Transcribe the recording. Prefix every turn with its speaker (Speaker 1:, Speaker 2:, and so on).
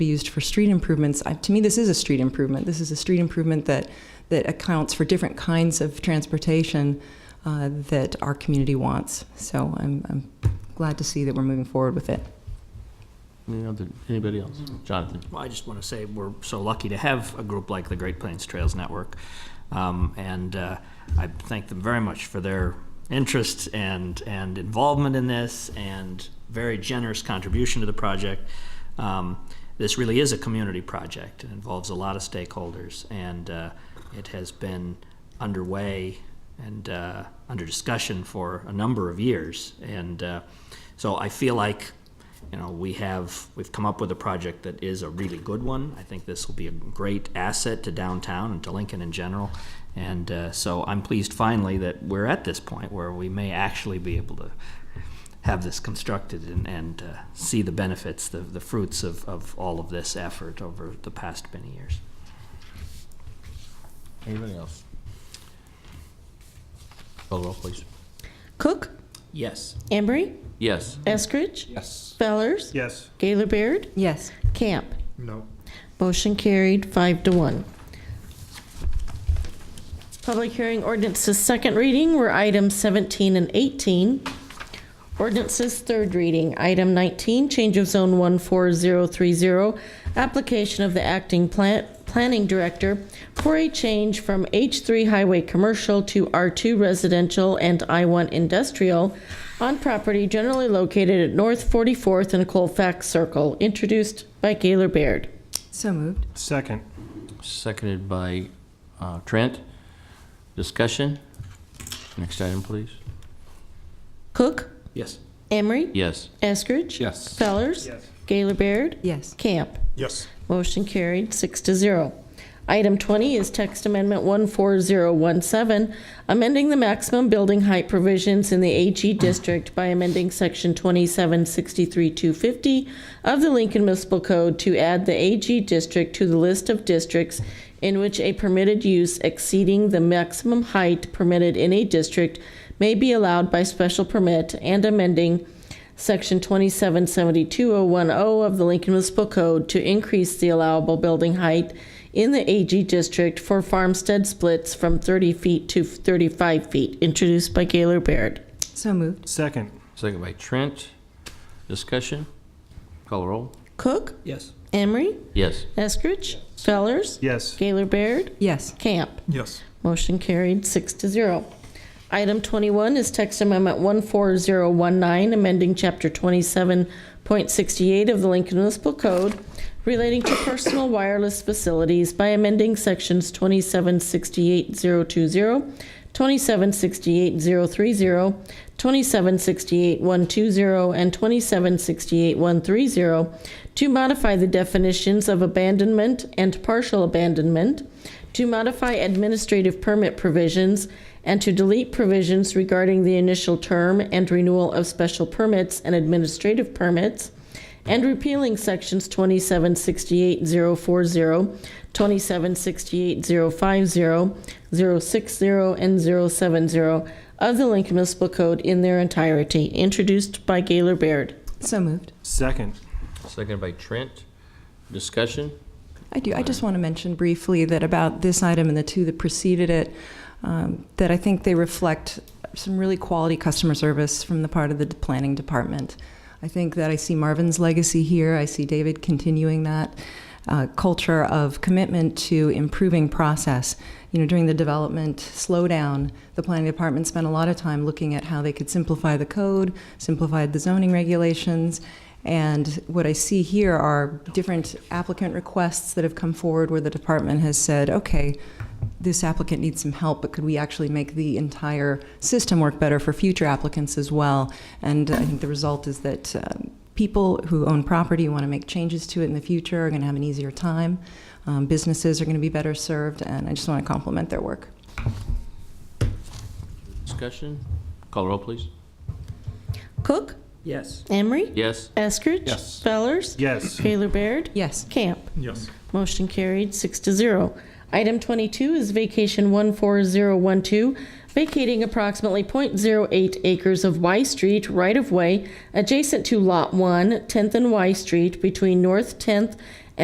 Speaker 1: be used for street improvements. I, to me, this is a street improvement. This is a street improvement that, that accounts for different kinds of transportation uh, that our community wants. So I'm, I'm glad to see that we're moving forward with it.
Speaker 2: Any other, anybody else? Jonathan?
Speaker 3: Well, I just want to say we're so lucky to have a group like the Great Plains Trails Network. Um, and uh, I thank them very much for their interest and, and involvement in this and very generous contribution to the project. Um, this really is a community project. It involves a lot of stakeholders, and uh, it has been underway and uh, under discussion for a number of years. And uh, so I feel like you know, we have, we've come up with a project that is a really good one. I think this will be a great asset to downtown and to Lincoln in general. And uh, so I'm pleased finally that we're at this point where we may actually be able to have this constructed and, and uh, see the benefits, the, the fruits of, of all of this effort over the past many years.
Speaker 2: Anybody else? Call the roll, please.
Speaker 4: Cook,
Speaker 3: Yes.
Speaker 4: Embry,
Speaker 2: Yes.
Speaker 4: Eskridge,
Speaker 5: Yes.
Speaker 4: Fellers,
Speaker 5: Yes.
Speaker 4: Gaylor Baird,
Speaker 1: Yes.
Speaker 4: Camp.
Speaker 5: No.
Speaker 4: Motion carried, five to one. Public hearing ordinances, second reading were items 17 and 18. Ordinances, third reading, item 19, change of zone 14030, application of the acting plant, planning director for a change from H3 highway commercial to R2 residential and I1 industrial on property generally located at North 44th and Colfax Circle, introduced by Gaylor Baird.
Speaker 1: So moved.
Speaker 5: Second.
Speaker 2: Seconded by uh, Trent. Discussion? Next item, please.
Speaker 4: Cook,
Speaker 3: Yes.
Speaker 4: Emery,
Speaker 2: Yes.
Speaker 4: Eskridge.
Speaker 5: Yes.
Speaker 4: Fellers.
Speaker 5: Yes.
Speaker 4: Gaylor Baird.
Speaker 1: Yes.
Speaker 4: Camp.
Speaker 5: Yes.
Speaker 4: Motion carried, six to zero. Item 20 is text amendment 14017, amending the maximum building height provisions in the AG district by amending section 2763250 of the Lincoln Municipal Code to add the AG district to the list of districts in which a permitted use exceeding the maximum height permitted in a district may be allowed by special permit and amending Section 2772010 of the Lincoln Municipal Code to increase the allowable building height in the AG district for farmstead splits from 30 feet to 35 feet, introduced by Gaylor Baird.
Speaker 1: So moved.
Speaker 5: Second.
Speaker 2: Seconded by Trent. Discussion? Call the roll.
Speaker 4: Cook,
Speaker 3: Yes.
Speaker 4: Emery,
Speaker 2: Yes.
Speaker 4: Eskridge, Fellers,
Speaker 5: Yes.
Speaker 4: Gaylor Baird,
Speaker 1: Yes.
Speaker 4: Camp.
Speaker 5: Yes.
Speaker 4: Motion carried, six to zero. Item 21 is text amendment 14019, amending Chapter 27.68 of the Lincoln Municipal Code relating to personal wireless facilities by amending Sections 2768020, 2768030, 2768120, and 2768130 to modify the definitions of abandonment and partial abandonment, to modify administrative permit provisions, and to delete provisions regarding the initial term and renewal of special permits and administrative permits, and repealing sections 2768040, 2768050, 060, and 070 of the Lincoln Municipal Code in their entirety, introduced by Gaylor Baird.
Speaker 1: So moved.
Speaker 5: Second.
Speaker 2: Seconded by Trent. Discussion?
Speaker 1: I do. I just want to mention briefly that about this item and the two that preceded it, um, that I think they reflect some really quality customer service from the part of the d- planning department. I think that I see Marvin's legacy here. I see David continuing that uh, culture of commitment to improving process. You know, during the development slowdown, the planning department spent a lot of time looking at how they could simplify the code, simplify the zoning regulations, and what I see here are different applicant requests that have come forward where the department has said, okay, this applicant needs some help, but could we actually make the entire system work better for future applicants as well? And I think the result is that um, people who own property who want to make changes to it in the future are going to have an easier time. Um, businesses are going to be better served, and I just want to compliment their work.
Speaker 2: Discussion? Call the roll, please.
Speaker 4: Cook,
Speaker 3: Yes.
Speaker 4: Emery,
Speaker 2: Yes.
Speaker 4: Eskridge,
Speaker 5: Yes.
Speaker 4: Fellers,
Speaker 5: Yes.
Speaker 4: Gaylor Baird,
Speaker 1: Yes.
Speaker 4: Camp.
Speaker 5: Yes.
Speaker 4: Motion carried, six to zero. Item 22 is vacation 14012, vacating approximately .08 acres of Y Street right-of-way adjacent to Lot 1, 10th and Y Street, between North 10th